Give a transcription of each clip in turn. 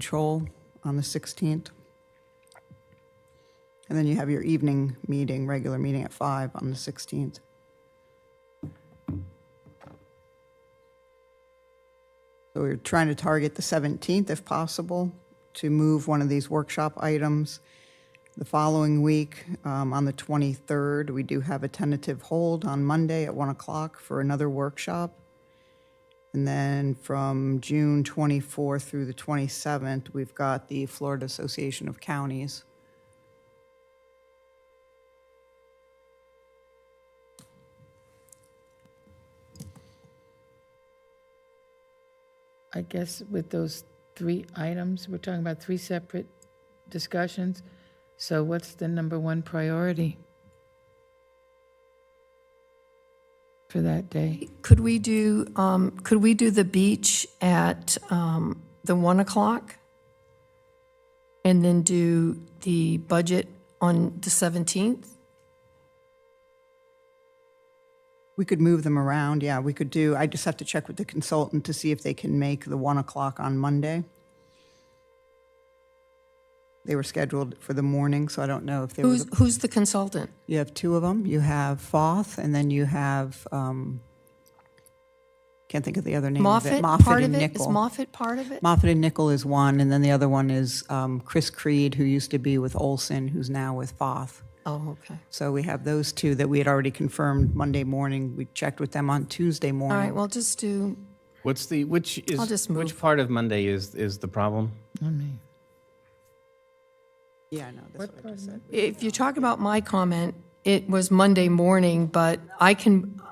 control on the 16th. And then you have your evening meeting, regular meeting at 5 on the 16th. So we're trying to target the 17th if possible, to move one of these workshop items. The following week, um, on the 23rd, we do have a tentative hold on Monday at 1 o'clock for another workshop. And then from June 24th through the 27th, we've got the Florida Association of Counties. I guess with those three items, we're talking about three separate discussions. So what's the number one priority for that day? Could we do, um, could we do the beach at um, the 1 o'clock? And then do the budget on the 17th? We could move them around, yeah, we could do, I just have to check with the consultant to see if they can make the 1 o'clock on Monday. They were scheduled for the morning, so I don't know if there was, Who's, who's the consultant? you have two of them. You have Foth, and then you have, um, can't think of the other name of it. Moffett part and of it? Is Nichol. Moffett part of it? Moffett and Nickel is one, and then the other one is um, Chris Creed, who used to be with Olson, who's now with Foth. Oh, okay. So we have those two that we had already confirmed Monday morning. We checked with them on Tuesday All right, morning. well, just do, What's the which is I'll just which move. part of Monday is is the problem? I mean, Yeah, I know, that's what I just said. if you're talking about my comment, it was Monday morning, but I can,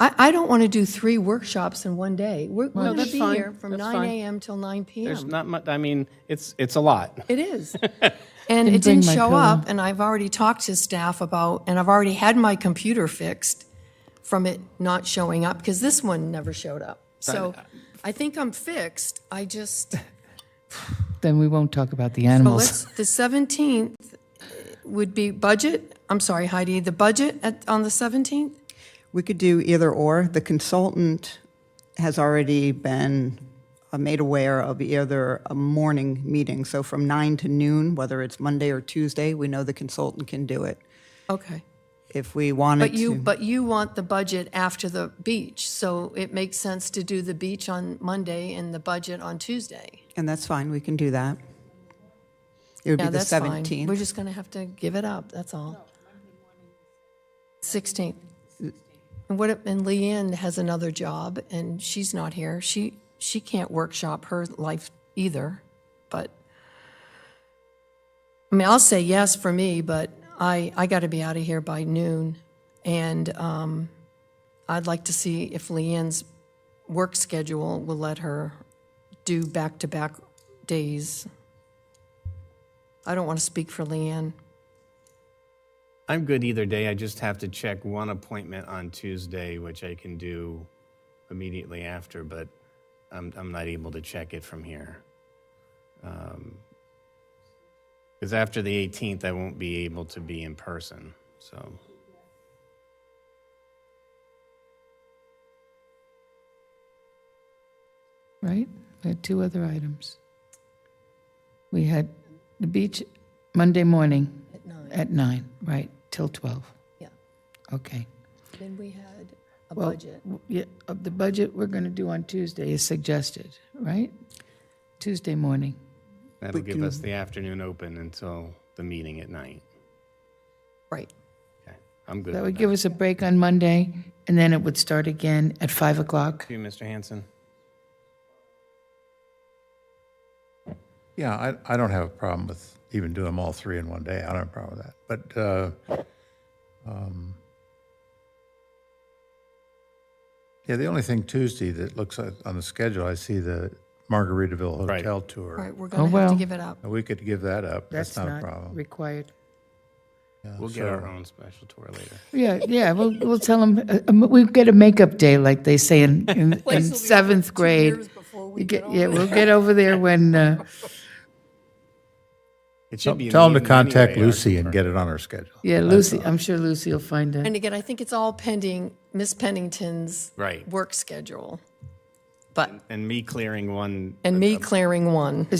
I, I don't want to do three workshops in one day. We're No, going to that's be fine. here from That's 9 fine. AM till 9 PM. There's not much. I mean, it's it's a lot. Um, It is. And it bring didn't my show pillow. up, and I've already talked to staff about, and I've already had my computer fixed from it not showing up, because this one never showed up. So I think I'm fixed, I just, Then we won't talk about the well, animals. let's, the 17th would be budget, I'm sorry, Heidi, the budget at, on the 17th? We could do either or. The consultant has already been uh, made aware of either a morning meeting, so from nine to noon, whether it's Monday or Tuesday, we know the consultant can do it. Okay. If we wanted But to. you, but you want the budget after the beach, so it makes sense to do the beach on Monday and the budget on Tuesday. And that's fine, we can do that. It would be Yeah, the that's fine. We're 17th. just going to have to give it up, that's all. 16th. And what, if- and Leanne has another job, and she's not here. She, she can't workshop her life either, but, I mean, I'll say yes for me, but I, I got to be out of here by noon. And um, I'd like to see if Leanne's work schedule will let her do back-to-back days. I don't want to speak for Leanne. I'm good either day. I just have to check one appointment on Tuesday, which I can do immediately after, but I'm I'm not able to check it from here. Because after the 18th, I won't be able to be in person. So right? We had two other items. We had the beach Monday morning. At nine. At nine, right, till 12, Yeah. okay. Then we had a Well, budget. w- Yeah, of the budget we're going to do on Tuesday is suggested, right? Tuesday morning. that'll give us the afternoon open until the meeting at night. Right. Okay, I'm good. That with would give us a break on Monday, and then it would start again at 5 o'clock. you, Mr. Hanson. Yeah, I, I don't have a problem with even doing them all three in one day. I don't have a problem with that. But uh, um, yeah, the only thing Tuesday that looks like on the schedule, I see the Margaritaville Right. Hotel All tour. right, we're Oh, going to have well. to give it up. And We could give that up. That's, That's not, a not problem. required. Uh, Yeah, We'll get our so- own special tour later. Yeah, yeah, we'll, we'll tell uh, them, we'll get a makeup day, like they say in, in- in seventh grade. You get- Yeah, we'll get over there when, uh, It Tell, should be. in them the to evening contact anyway, our Lucy tour. and get it on her schedule. yeah, Lucy, I'm sure Lucy will find it. And again, I think it's all pending Miss Pennington's Right. work schedule, but, And me clearing one Um, and me clearing one.